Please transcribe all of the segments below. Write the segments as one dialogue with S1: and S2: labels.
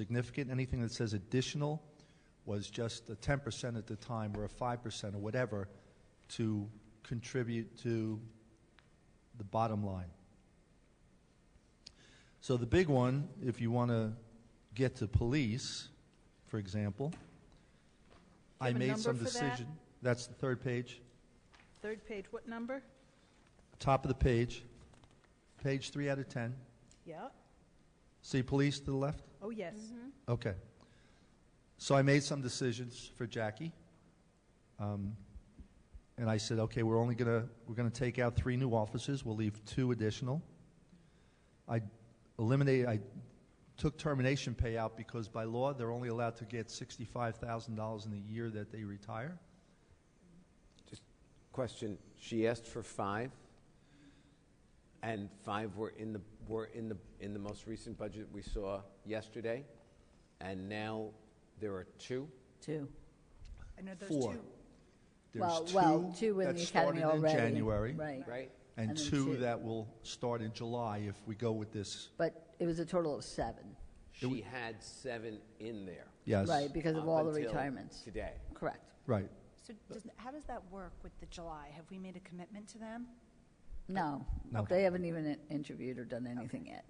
S1: significant. Anything that says additional was just a 10% at the time, or a 5%, or whatever, to contribute to the bottom line. So the big one, if you want to get to police, for example,
S2: you
S1: I
S2: have a
S1: made
S2: number
S1: some
S2: for that?
S1: decision. That's the third page,
S2: Third page, what number?
S1: top of the page, page three out of 10.
S2: Yeah,
S1: See police to the left?
S2: oh, yes.
S3: Mm-hmm.
S1: Okay. So I made some decisions for Jackie. Um, and I said, okay, we're only going to, we're going to take out three new offices. We'll leave two additional. I eliminated, I took termination pay out because by law, they're only allowed to get $65,000 in the year that they retire.
S4: Question, she asked for five, and five were in the, were in the, in the most recent budget we saw yesterday, and now there are two?
S5: Two.
S2: I know those
S1: Four.
S2: two.
S1: There's
S5: Well-
S1: two
S5: Well, two in
S1: that
S5: the
S1: started
S5: academy already.
S1: in January,
S5: Right.
S4: Right?
S1: and,
S5: And then
S1: two,
S5: two.
S1: that will start in July if we go with this.
S5: But it was a total of seven,
S4: She had seven in there.
S1: Yes.
S5: right, because of
S4: up
S5: all the
S4: until
S5: retirements.
S4: Today.
S5: Correct.
S1: Right.
S3: So does, how does that work with the July? Have we made a commitment to them?
S5: No,
S1: No.
S5: they haven't even in- interviewed or done anything yet.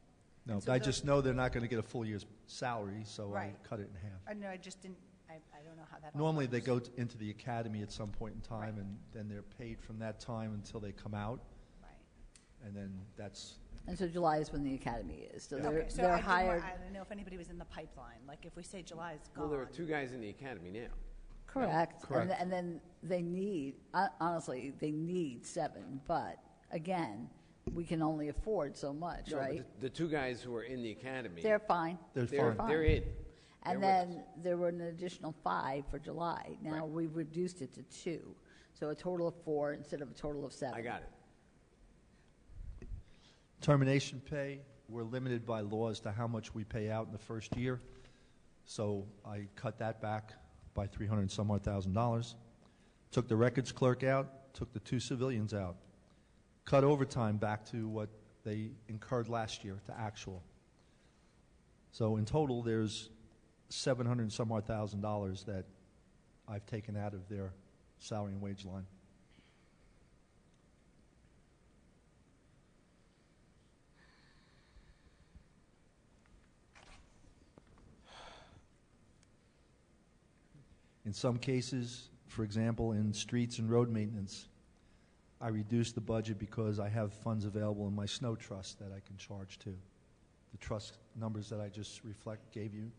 S1: No,
S3: so
S1: I
S3: the-
S1: just know they're not going to get a full year's salary, so I
S3: Right.
S1: cut it in half.
S3: I know, Uh, I just didn't, I, I don't know how that all
S1: Normally, they
S3: works.
S1: go t- into the academy at some point in time, and then they're paid from that time until they come out,
S3: Right.
S1: and then that's,
S5: And so July is when the academy is, so they're,
S3: Okay, so I
S5: they're
S3: didn't wa-
S5: hired.
S3: I don't know if anybody was in the pipeline, like if we say July is
S4: Well,
S3: gone.
S4: there are two guys in the academy now.
S5: Correct.
S1: Correct.
S5: And, th- and then they need, hon- honestly, they need seven, but again, we can only afford so much,
S4: No, but
S5: right?
S4: The the two guys who are in the academy.
S5: They're fine.
S1: they're
S4: They're,
S1: fine.
S4: they're in.
S5: And
S4: They're with
S5: then there were an additional five for July. Now
S4: Right.
S5: we've reduced it to two, so a total of four instead of a total of seven.
S4: I got it.
S1: Termination pay, we're limited by law as to how much we pay out in the first year, so I cut that back by 300 and some odd thousand dollars. Took the records clerk out, took the two civilians out, cut overtime back to what they incurred last year, to actual. So in total, there's 700 and some odd thousand dollars that I've taken out of their salary and wage line. In some cases, for example, in streets and road maintenance, I reduce the budget because I have funds available in my snow trust that I can charge to. The trust numbers that I just reflect, gave you,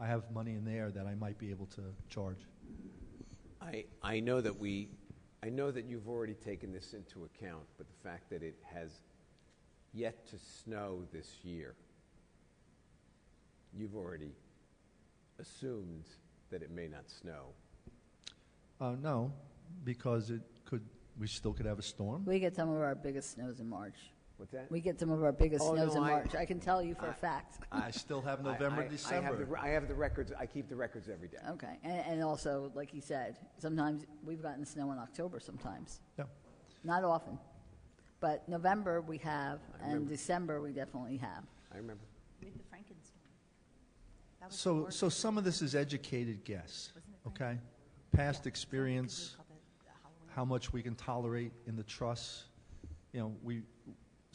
S1: I have money in there that I might be able to charge.
S4: I, I know that we, I know that you've already taken this into account, but the fact that it has yet to snow this year, you've already assumed that it may not snow.
S1: Uh, no, because it could, we still could have a storm.
S5: We get some of our biggest snows in March.
S4: What's that?
S5: We get some of our biggest
S4: Oh,
S5: snows
S4: no,
S5: in
S4: I-
S5: March. I can tell you for
S4: I-
S5: a fact.
S1: I still have
S4: I- I- I
S1: November,
S4: have the
S1: December.
S4: re- I have the records, I keep the records every day.
S5: Okay, and, and also, like you said, sometimes we've gotten snow in October sometimes,
S1: Yeah.
S5: not often. But November we have, and
S4: remember.
S5: December we definitely have.
S4: I remember.
S3: With the Frankenstein. That was the
S1: So,
S3: worst.
S1: so some of this is educated guess,
S3: Wasn't it Frank?
S1: okay?
S3: Yeah,
S1: Past
S3: so
S1: experience.
S3: we call it a Halloween.
S1: how much we can tolerate in the truss. You know, we,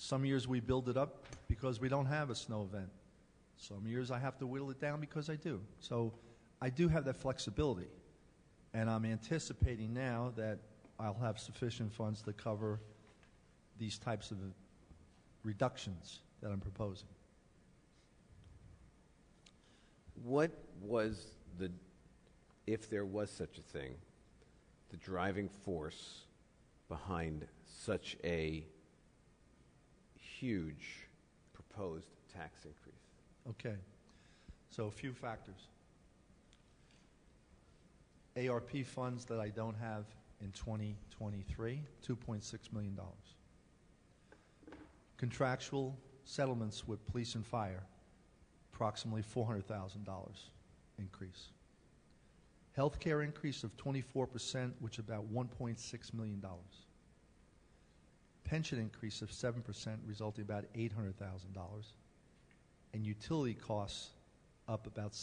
S1: some years we build it up because we don't have a snow event. Some years I have to whittle it down because I do. So I do have that flexibility. And I'm anticipating now that I'll have sufficient funds to cover these types of reductions that I'm proposing.
S4: What was the, if there was such a thing, the driving force behind such a huge proposed tax increase?
S1: Okay. So a few factors. ARP funds that I don't have in 2023, $2.6 million. Contractual settlements with police and fire, approximately $400,000 increase. Healthcare increase of 24%, which is about $1.6 million. Pension increase of 7%, resulting about $800,000 and utility costs up about